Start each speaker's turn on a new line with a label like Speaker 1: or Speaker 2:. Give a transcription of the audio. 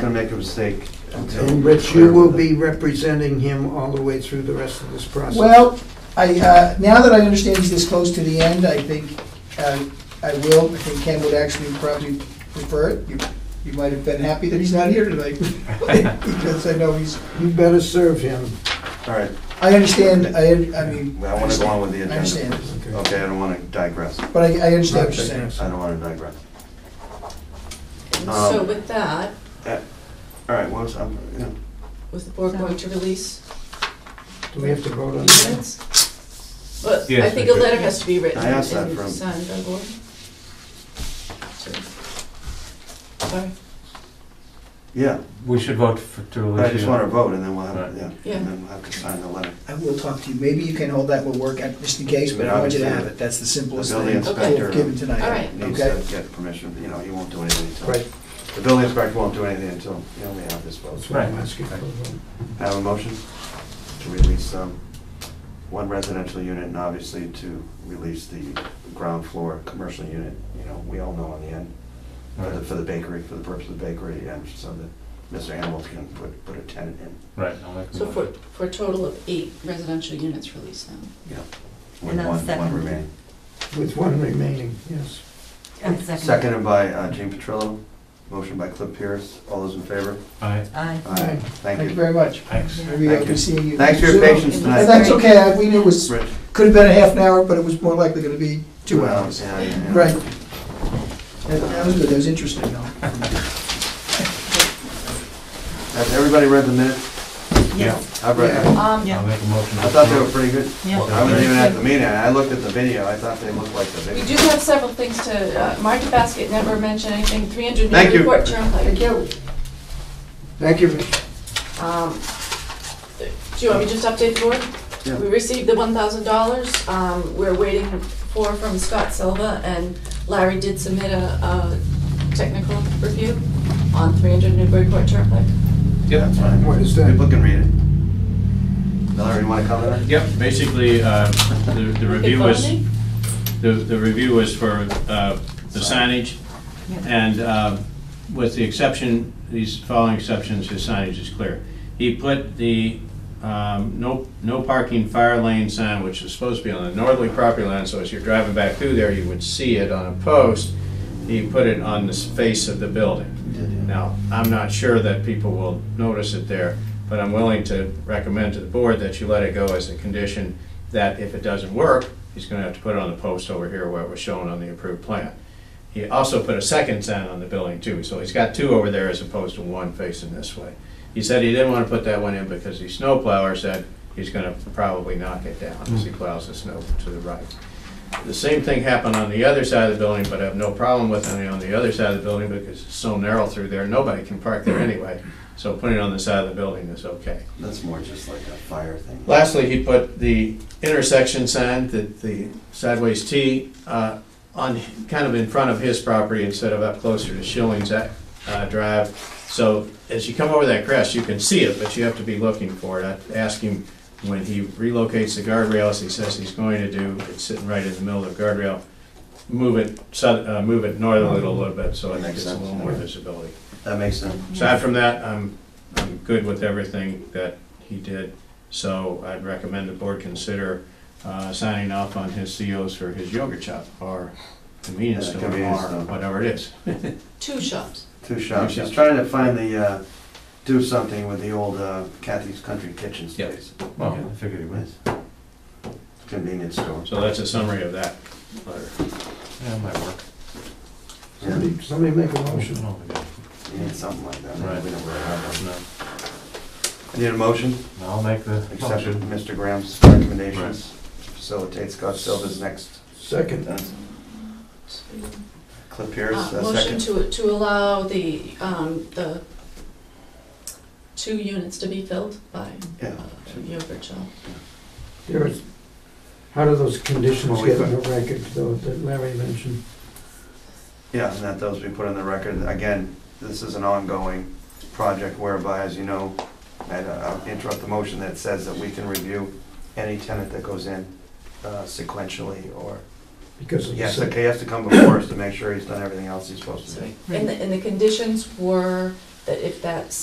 Speaker 1: gonna make a mistake until.
Speaker 2: And Rich, you will be representing him all the way through the rest of this process.
Speaker 3: Well, I, uh, now that I understand he's this close to the end, I think uh, I will, I think Ken would actually probably prefer it. You you might have been happy that he's not here tonight, because I know he's,
Speaker 2: You better serve him.
Speaker 1: All right,
Speaker 3: I understand, I, I mean.
Speaker 1: I wanna go on with the
Speaker 3: I
Speaker 1: agenda.
Speaker 3: understand,
Speaker 1: Okay, I don't wanna digress.
Speaker 3: but I, I understand what you're saying.
Speaker 1: I don't wanna digress.
Speaker 4: And
Speaker 1: Um,
Speaker 4: So with that,
Speaker 1: All right, well, I'm, you know,
Speaker 4: was the board going to release
Speaker 2: Do we have to vote on
Speaker 4: these
Speaker 2: that?
Speaker 4: minutes? But I
Speaker 5: Yes,
Speaker 4: think
Speaker 5: we
Speaker 4: a
Speaker 5: do.
Speaker 4: letter has to be written
Speaker 1: I asked that
Speaker 4: and
Speaker 1: from-
Speaker 4: signed by the board. So- Sorry,
Speaker 1: yeah,
Speaker 5: We should vote for, to
Speaker 1: but
Speaker 5: release.
Speaker 1: I just
Speaker 5: you.
Speaker 1: wanna vote and then we'll have,
Speaker 5: Right.
Speaker 1: yeah,
Speaker 4: Yeah.
Speaker 1: and then we'll have to sign the letter.
Speaker 3: I will talk to you, maybe you can hold that, we'll work out just in case, but I want you to have it, that's the simplest
Speaker 1: The
Speaker 3: thing
Speaker 1: building
Speaker 3: we've
Speaker 1: inspector
Speaker 3: given tonight.
Speaker 4: All right.
Speaker 1: Needs
Speaker 3: Okay.
Speaker 1: to get permission, you know, he won't do anything until.
Speaker 2: Right,
Speaker 1: The building inspector won't do anything until, you know, we have this vote.
Speaker 2: that's what I'm asking for. a vote.
Speaker 1: Have a motion to release um, one residential unit and obviously to release the ground floor commercial unit, you know, we all know in the end, for the- for the bakery, for the purpose of the bakery, and so that Mr. Hamel can put, put a tenant in.
Speaker 5: Right, I'll make a
Speaker 4: so for,
Speaker 5: motion.
Speaker 4: for a total of eight residential units released now.
Speaker 1: with
Speaker 6: And I'll
Speaker 1: one- One
Speaker 6: second.
Speaker 1: remaining.
Speaker 2: With one remaining, yes.
Speaker 6: I second.
Speaker 1: Seconded by uh, Gene Petrillo, motion by Cliff Pierce, all those in favor?
Speaker 5: Aye.
Speaker 6: Aye.
Speaker 2: Aye.
Speaker 1: Thank
Speaker 3: Thank you
Speaker 1: you.
Speaker 3: very much.
Speaker 5: Thanks.
Speaker 3: Maybe I'll
Speaker 1: Thank
Speaker 3: be
Speaker 1: you.
Speaker 3: seeing you.
Speaker 1: Thanks for your
Speaker 3: soon.
Speaker 1: patience tonight.
Speaker 3: And That's okay, I- we knew it was,
Speaker 1: Rich.
Speaker 3: could have been a half an hour, but it was more likely gonna be two
Speaker 1: Well,
Speaker 3: hours.
Speaker 1: yeah, yeah, yeah.
Speaker 3: Right. That that was good, that was interesting, though.
Speaker 1: Has everybody read the minutes?
Speaker 5: Yeah.
Speaker 1: I've read them.
Speaker 6: Um,
Speaker 5: I'll make a motion.
Speaker 1: I thought they were pretty good.
Speaker 6: Yeah.
Speaker 1: I wasn't even at the meeting, I looked at the video, I thought they looked like the
Speaker 4: We
Speaker 1: video.
Speaker 4: do have several things to, uh, Market Basket never mentioned anything, 300
Speaker 1: Thank
Speaker 4: new
Speaker 1: you.
Speaker 4: report term. Thank you.
Speaker 2: Thank you, Rich.
Speaker 4: Um, Do you want me to just update the board?
Speaker 1: Yeah.
Speaker 4: We received the one thousand dollars, um, we're waiting for from Scott Silva, and Larry did submit a, a technical review on three hundred Newburyport Turnpike.
Speaker 7: Yep,
Speaker 1: That's fine.
Speaker 2: What is that?
Speaker 1: People can read it. Mallory, you wanna comment on it?
Speaker 7: yep, basically, uh, the the review was, the the review was for uh, the signage, and uh, with the exception, these following exceptions, his signage is clear. He put the um, no no parking fire lane sign, which is supposed to be on the northerly property line, so as you're driving back through there, you would see it on a post. He put it on the face of the building. Now, I'm not sure that people will notice it there, but I'm willing to recommend to the board that you let it go as a condition that if it doesn't work, he's gonna have to put it on the post over here where it was shown on the approved plan. He also put a second sign on the building too, so he's got two over there as opposed to one facing this way. He said he didn't wanna put that one in because the snowplower said he's gonna probably knock it down as he plows the snow to the right. The same thing happened on the other side of the building, but I have no problem with it on the other side of the building because it's so narrow through there, nobody can park there anyway. So putting it on the side of the building is okay.
Speaker 1: That's more just like a fire thing.
Speaker 7: Lastly, he put the intersection sign, the, the sideways T, uh, on, kind of in front of his property instead of up closer to Schilling's, uh, Drive. So as you come over that crest, you can see it, but you have to be looking for it. I asked him when he relocates the guardrail, as he says he's going to do, it's sitting right in the middle of the guardrail. Move it, sou- uh, move it north a little, little bit, so I think
Speaker 1: Makes
Speaker 7: it's a
Speaker 1: sense.
Speaker 7: little more visibility.
Speaker 1: That makes sense.
Speaker 7: Aside from that, I'm, I'm good with everything that he did, so I'd recommend the board consider uh, signing off on his COs for his yogurt shop or convenience
Speaker 1: Yeah,
Speaker 7: store
Speaker 1: convenience store.
Speaker 7: or whatever it is.
Speaker 4: Two shops.
Speaker 1: Two shops,
Speaker 7: Two
Speaker 1: she's
Speaker 7: shops.
Speaker 1: trying to find the, uh, do something with the old uh, Kathy's Country Kitchen
Speaker 7: Yep.
Speaker 1: space.
Speaker 5: Well, I figured it was.
Speaker 1: Convenience store.
Speaker 7: So that's a summary of that letter.
Speaker 5: Yeah, it might work.
Speaker 1: Yeah,
Speaker 2: Somebody- Somebody make a motion.
Speaker 5: Oh, my God.
Speaker 1: you need something like that.
Speaker 5: Right.
Speaker 1: We don't really have
Speaker 5: No,
Speaker 1: one. Need a motion?
Speaker 5: No, I'll make the
Speaker 1: Accept
Speaker 5: motion.
Speaker 1: Mr. Graham's recommendations. Facilitate Scott Silva's next.
Speaker 2: Second.
Speaker 1: Clip here is
Speaker 4: Uh,
Speaker 1: a
Speaker 4: Motion
Speaker 1: second.
Speaker 4: to, to allow the, um, the two units to be filled by
Speaker 1: Yeah.
Speaker 4: uh, yogurt shop.
Speaker 2: There is, how do those conditions
Speaker 1: Well, we
Speaker 2: get in the record, though, that Larry mentioned?
Speaker 1: Yeah, and that those we put on the record. Again, this is an ongoing project whereby, as you know, and I'll interrupt the motion that says that we can review any tenant that goes in uh, sequentially or,
Speaker 2: Because of
Speaker 1: he
Speaker 2: the
Speaker 1: has to,
Speaker 2: second.
Speaker 1: he has to come before us to make sure he's done everything else he's supposed to do.
Speaker 4: And the, and the conditions were that if that